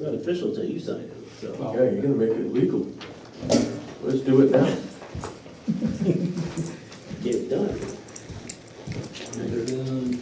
not official till you sign it, so. Yeah, you're gonna make it legal. Let's do it now. Get it done. Get it done.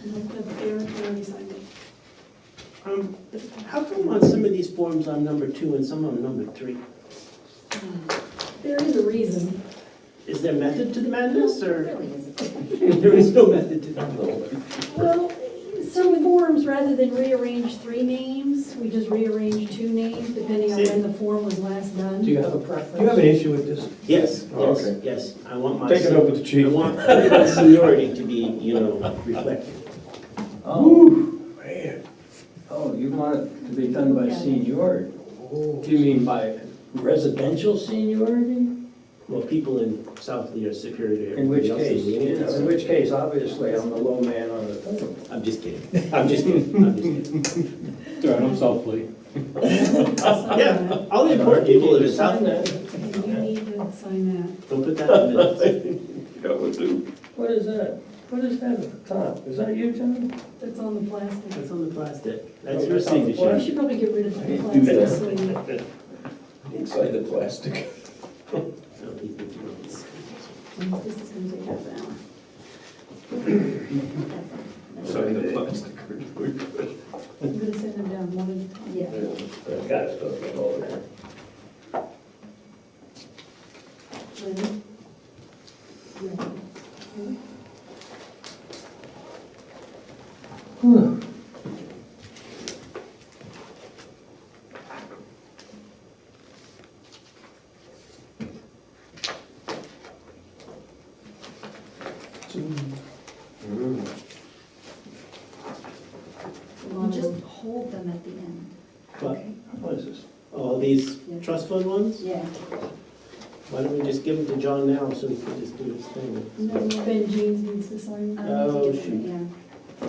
I don't have Eric already signed it. Um, How come on some of these forms I'm number two and some I'm number three? There is a reason. Is there method to the madness, or? Really is. There is no method to the madness. Well, some forms, rather than rearrange three names, we just rearrange two names depending on when the form was last done. Do you have a preference? Do you have an issue with this? Yes, Oh, yes, okay. yes, I want my. Take it up with the I chief. want my seniority to be, you know, reflected. Oh, Man, oh, you want it to be done by seniority? Do you mean by, Residential seniority? Well, people in South Lee are superior to In which everybody else. case, the you know, union, in so- which case, obviously, I'm the low man on the totem. I'm just kidding, I'm just kidding, I'm just kidding. Darn, I'm South Lee. Yeah, all the important people live in South Lee. And you need to sign that. Don't put that in the minutes. What is that? What is that at the top? Is that you, John? That's on the plastic. That's on the plastic, that's your That's on the We signature. should probably get rid of the Hey, do that. plastic. so we- inside the plastic. No, please, please, please. This is gonna take half an hour. Inside the plastic. I'm gonna send them down one at a time. Yeah. Got it, okay, hold it. Lynn? Lynn? You just hold them at the end. But What is this? all these trust fund ones, Yeah. why don't we just give them to John now so he can just do his thing? No, Ben Jeans needs to sign I that. don't Oh, need to shoot. do that, yeah.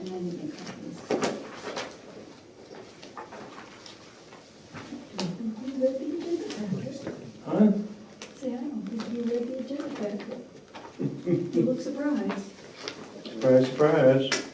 And then you make copies. I don't Huh? think you read the agenda packet. Say, I don't think you read the agenda packet. You look surprised. Surprise, surprise.